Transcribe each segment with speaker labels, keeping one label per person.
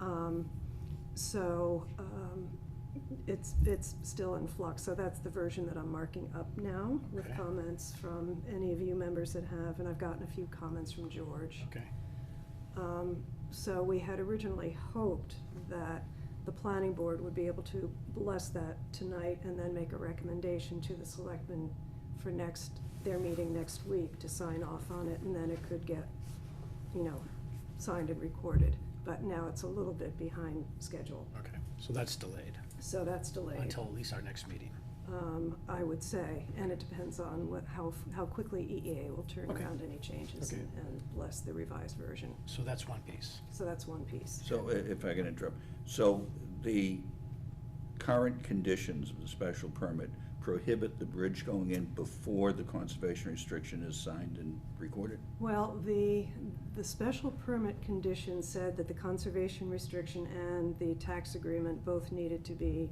Speaker 1: Um, So um, it's, it's still in flux, so that's the version that I'm marking up now with
Speaker 2: Okay.
Speaker 1: comments from any of you members that have, and I've gotten a few comments from George.
Speaker 2: Okay,
Speaker 1: Um, So we had originally hoped that the planning board would be able to bless that tonight and then make a recommendation to the selectmen for next, their meeting next week to sign off on it, and then it could get, you know, signed and recorded. But now it's a little bit behind schedule,
Speaker 2: okay. So that's delayed
Speaker 1: so that's delayed,
Speaker 2: until at least our next meeting.
Speaker 1: um, I would say. And it depends on what, how, how quickly EEA will turn
Speaker 2: Okay.
Speaker 1: around any changes
Speaker 2: Okay.
Speaker 1: and and bless the revised version.
Speaker 2: So that's one piece.
Speaker 1: So that's one piece.
Speaker 3: So i- if I can interrupt, so the current conditions of the special permit prohibit the bridge going in before the conservation restriction is signed and recorded?
Speaker 1: Well, the, the special permit condition said that the conservation restriction and the tax agreement both needed to be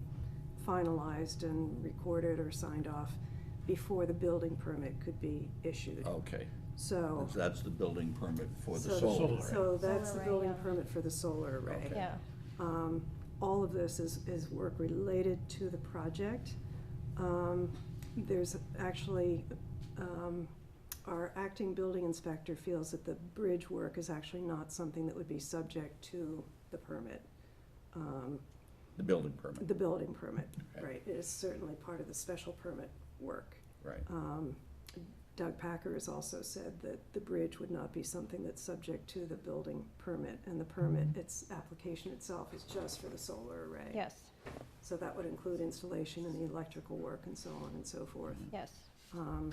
Speaker 1: finalized and recorded or signed off before the building permit could be issued,
Speaker 3: Okay,
Speaker 1: so.
Speaker 3: so that's the building permit Oh, for the
Speaker 1: so-
Speaker 3: solar.
Speaker 2: Solar.
Speaker 1: So that's
Speaker 4: Solar
Speaker 1: the
Speaker 4: array,
Speaker 1: building
Speaker 4: yeah.
Speaker 1: permit for the solar array.
Speaker 3: Okay.
Speaker 4: Yeah,
Speaker 1: Um, All of this is, is work related to the project. Um, There's actually, um, our acting building inspector feels that the bridge work is actually not something that would be subject to the permit, um,
Speaker 3: The building permit,
Speaker 1: the building permit,
Speaker 3: Okay.
Speaker 1: right? It is certainly part of the special permit work.
Speaker 3: right.
Speaker 1: Um, Doug Packer has also said that the bridge would not be something that's subject to the building permit, and the permit, its application itself is just for the solar array.
Speaker 4: yes,
Speaker 1: So that would include installation and the electrical work and so on and so forth.
Speaker 4: yes.
Speaker 1: Um,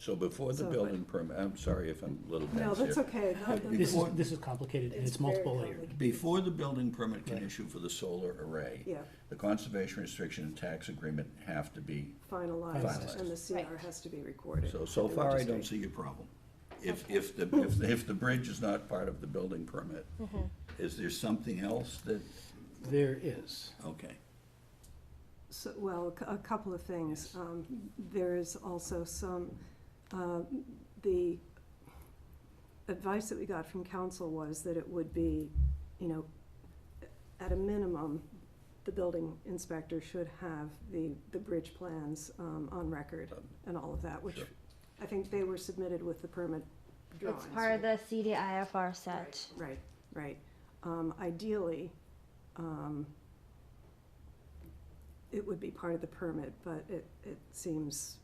Speaker 3: So before the
Speaker 1: So-
Speaker 3: building permit, I'm sorry if I'm a little
Speaker 1: No,
Speaker 3: dense
Speaker 1: that's
Speaker 3: here.
Speaker 1: okay. No, that's-
Speaker 2: This is, this is complicated and it's
Speaker 1: very
Speaker 2: multiple layered.
Speaker 1: complicated.
Speaker 3: Before the building permit can
Speaker 2: Right.
Speaker 3: issue for the solar array,
Speaker 1: Yeah,
Speaker 3: the conservation restriction and tax agreement have to be,
Speaker 1: finalized,
Speaker 3: Finalized.
Speaker 1: and the CR
Speaker 4: Right.
Speaker 1: has to be recorded.
Speaker 3: so, so
Speaker 1: with the
Speaker 3: far I don't
Speaker 1: registry.
Speaker 3: see your problem. If, if the, if, if the bridge is not part of the building permit, is there something else that,
Speaker 2: There is.
Speaker 3: okay,
Speaker 1: So, well, a cou- a couple of things. Um, There is also some, uh, the advice that we got from council was that it would be, you know, at a minimum, the building inspector should have the, the bridge plans um, on record and all of that, which
Speaker 3: Sure.
Speaker 1: I think they were submitted with the permit drawings.
Speaker 4: It's part of
Speaker 1: right?
Speaker 4: the CDIFR set.
Speaker 1: Right, right. Um, ideally, um, it would be part of the permit, but it, it seems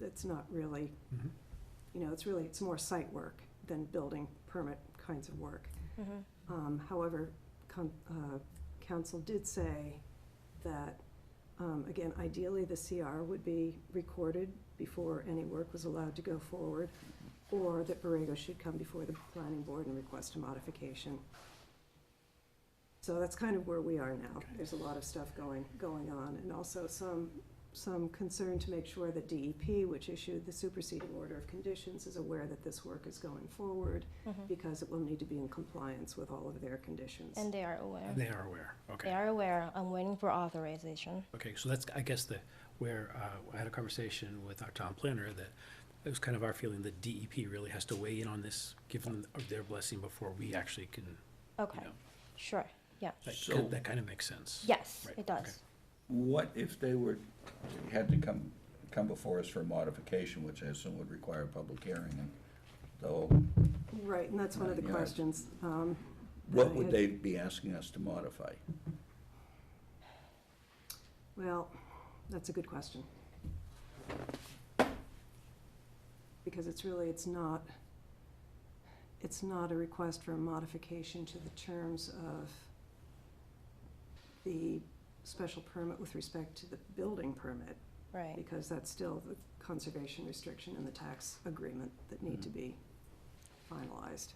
Speaker 1: it's not really,
Speaker 2: Mhm.
Speaker 1: you know, it's really, it's more site work than building permit kinds of work.
Speaker 4: Mm-hmm.
Speaker 1: Um, however, con- uh, council did say that, um, again, ideally, the CR would be recorded before any work was allowed to go forward, or that Borrego should come before the planning board and request a modification. So that's kind of where we are now.
Speaker 2: Okay.
Speaker 1: There's a lot of stuff going, going on, and also some, some concern to make sure that DEP, which issued the superseding order of conditions, is aware that this work is going forward, because it will need to be in compliance with all of their conditions.
Speaker 4: And they are aware.
Speaker 2: And they are aware.
Speaker 4: They
Speaker 2: Okay.
Speaker 4: are aware. I'm waiting for authorization.
Speaker 2: Okay, so that's, I guess, the, where uh, I had a conversation with our town planner that it was kind of our feeling that DEP really has to weigh in on this, give them their blessing before we actually can, you
Speaker 4: Okay,
Speaker 2: know,
Speaker 4: sure, yeah.
Speaker 2: that
Speaker 3: So-
Speaker 2: kind, that kind of makes sense.
Speaker 4: Yes,
Speaker 2: Right,
Speaker 4: it
Speaker 2: okay.
Speaker 4: does.
Speaker 3: What if they were, had to come, come before us for a modification, which I assume would require a public hearing, and though,
Speaker 1: Right, and that's one of the
Speaker 3: Nine yards.
Speaker 1: questions. um, that I
Speaker 3: what would
Speaker 1: had-
Speaker 3: they be asking us to modify?
Speaker 1: Well, that's a good question. Because it's really, it's not, it's not a request for a modification to the terms of the special permit with respect to the building permit,
Speaker 4: Right,
Speaker 1: because that's still the conservation restriction and the tax agreement that need to be finalized.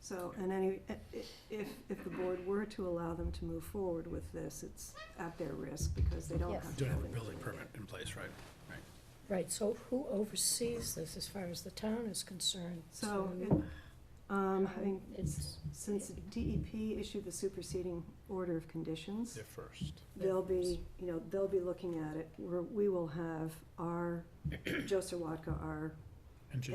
Speaker 1: So, and any, i- i- if, if the board were to allow them to move forward with this, it's at their risk because they don't
Speaker 4: Yes.
Speaker 1: have.
Speaker 2: Don't have a building permit in place, right? Right.
Speaker 5: Right, so who oversees this as far as the town is concerned?
Speaker 1: So, it- um, I think
Speaker 5: It's,
Speaker 1: since DEP issued the superseding order of conditions.
Speaker 2: They're first.
Speaker 1: they'll be, you know, they'll be looking at it, we're, we will have our, Joe Sawatka, our